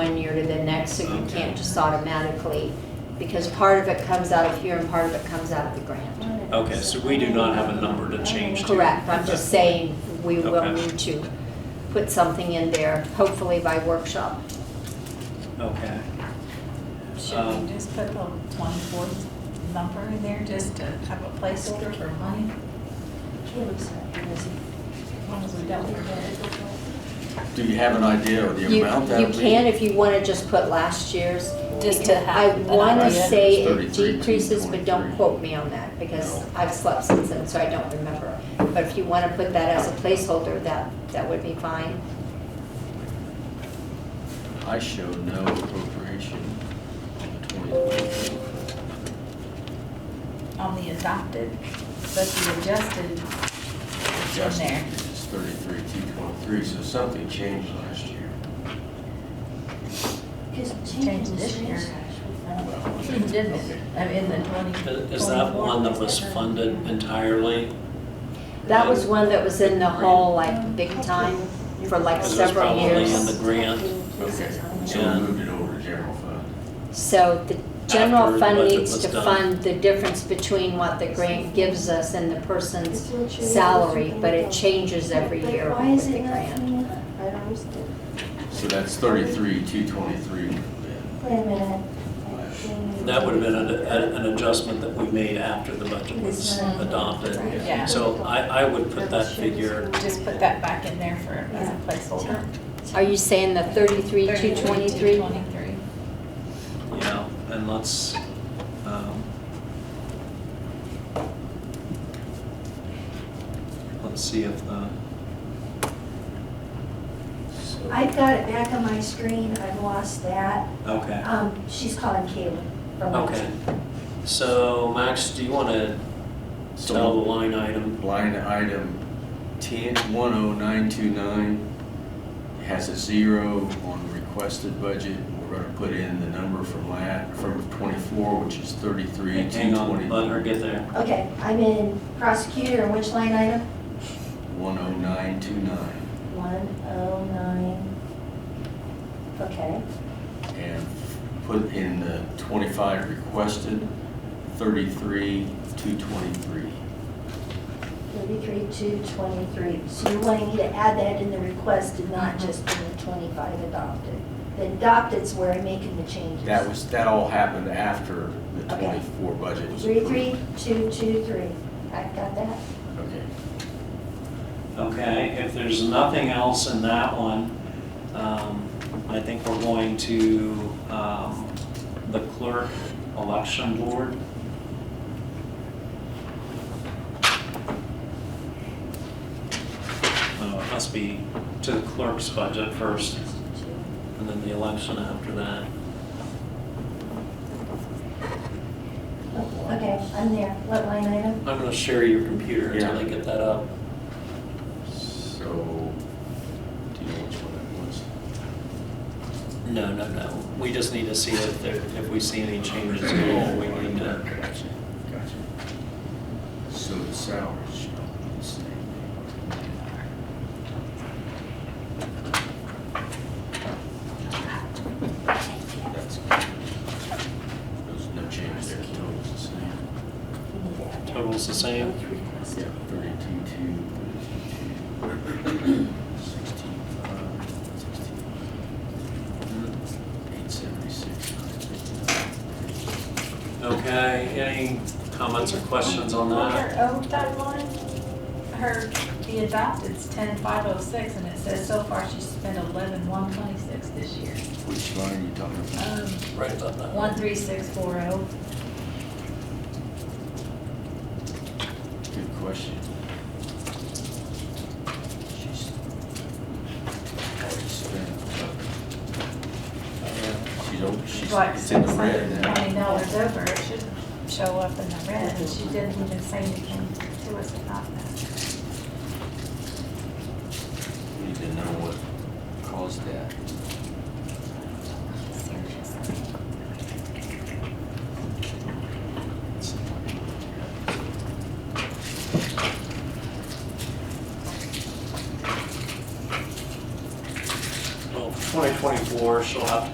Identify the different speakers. Speaker 1: one year to the next, so you can't just automatically, because part of it comes out of here and part of it comes out of the grant.
Speaker 2: Okay, so we do not have a number to change to.
Speaker 1: Correct, I'm just saying, we will
Speaker 2: Okay.
Speaker 1: need to put something in there, hopefully by workshop.
Speaker 2: Okay. Um,
Speaker 3: Should we just put the twenty-fourth number in there just to have a placeholder for money? As long as we don't forget it.
Speaker 4: Do you have an idea of the
Speaker 1: You,
Speaker 4: amount that
Speaker 1: you
Speaker 4: would be?
Speaker 1: can if you wanna just put last year's,
Speaker 3: Just to
Speaker 1: because I
Speaker 3: have an
Speaker 1: wanna
Speaker 3: idea.
Speaker 1: say it
Speaker 4: 33,
Speaker 1: decreases, but don't
Speaker 4: 23.
Speaker 1: quote me on that, because
Speaker 4: No.
Speaker 1: I've slept since then, so I don't remember. But if you wanna put that as a placeholder, that, that would be fine.
Speaker 4: I show no appropriation in 2022.
Speaker 3: On the adopted, but the adjusted is in
Speaker 4: Adjusted
Speaker 3: there.
Speaker 4: is 33,223, so something changed last year.
Speaker 5: Because
Speaker 3: Change this year. Didn't it? I mean, the twenty.
Speaker 2: Is that one that was funded entirely?
Speaker 1: That was one that was in the hole like big time for like
Speaker 2: Because it's
Speaker 1: several
Speaker 2: probably in the
Speaker 1: years.
Speaker 2: grant.
Speaker 4: Okay, so
Speaker 2: Yeah.
Speaker 4: we moved it over to general fund.
Speaker 1: So the
Speaker 2: After
Speaker 1: general
Speaker 2: the
Speaker 1: fund
Speaker 2: budget
Speaker 1: needs
Speaker 2: was
Speaker 1: to
Speaker 2: done.
Speaker 1: fund the difference between what the grant gives us and the person's salary, but it changes every year
Speaker 5: Why is
Speaker 1: with the
Speaker 5: it not?
Speaker 1: grant.
Speaker 5: coming up? I don't understand.
Speaker 4: So that's 33,223 then.
Speaker 5: Wait a minute.
Speaker 2: That would have been an, a- an adjustment that we made after the budget was
Speaker 3: Mhm.
Speaker 2: adopted.
Speaker 3: Yeah.
Speaker 2: So I, I would put that figure,
Speaker 3: Just put that back in there for, as a placeholder.
Speaker 1: Are you saying the thirty-three, two twenty-three?
Speaker 3: Twenty-three.
Speaker 2: you know, and let's, um, let's see if the,
Speaker 4: So-
Speaker 5: I've got it back on my screen, I've lost that.
Speaker 2: okay.
Speaker 5: Um, she's calling Caitlin from my
Speaker 2: Okay. So Max, do you want to
Speaker 4: So
Speaker 2: tell the line item?
Speaker 4: Line item 10, 10929 has a zero on requested budget. We're going to put in the number from lat, from 24, which is 33,
Speaker 2: Hang on, let her get there.
Speaker 5: Okay, I'm in prosecutor, and which line item?
Speaker 4: 10929.
Speaker 5: One oh nine. Okay,
Speaker 4: And put in the 25 requested, 33,223.
Speaker 5: thirty-three, two, twenty-three. So you're wanting me to add that in the request and not just in the twenty-five adopted? The adopted's where I'm making the changes.
Speaker 4: That was, that all happened after the
Speaker 5: Okay.
Speaker 4: 24 budget was
Speaker 5: Three,
Speaker 4: approved.
Speaker 5: three, two, two, three. I got that?
Speaker 4: Okay.
Speaker 2: Okay, if there's nothing else in that one, um, I think we're going to um, the clerk election board. No, Uh, it must be to the clerk's budget first, and then the election after that.
Speaker 5: Okay, I'm there. What line item?
Speaker 2: I'm gonna share your computer until I get that up.
Speaker 4: So, do you know which one that
Speaker 2: No,
Speaker 4: was?
Speaker 2: no, no, we just need to see if there, if we see any changes at all, we need to.
Speaker 4: Gotcha, gotcha. So the salaries shall be the same. That's good. There's no change there, total's the same.
Speaker 5: You need to add that.
Speaker 2: Total's the same?
Speaker 4: Yeah, thirty-two, two, thirty-two, two, sixteen, five, sixteen, eight seventy-six, nine fifty-nine.
Speaker 2: Okay, any comments or questions on that?
Speaker 3: Her overtime line, her, the adopted's ten five oh six, and it says so far she's spent eleven one twenty-six this year.
Speaker 4: Which line are you talking about?
Speaker 3: Um,
Speaker 2: Right about that.
Speaker 3: one three six four oh.
Speaker 4: Good question. She's already spent. She's, over- she's, it's in the red
Speaker 3: Twenty
Speaker 4: now.
Speaker 3: dollars over, it should show up in the red, and she didn't even say anything to us about that.
Speaker 4: We Need to know what caused that.
Speaker 3: Seriously.
Speaker 2: Well, 2024, she'll have to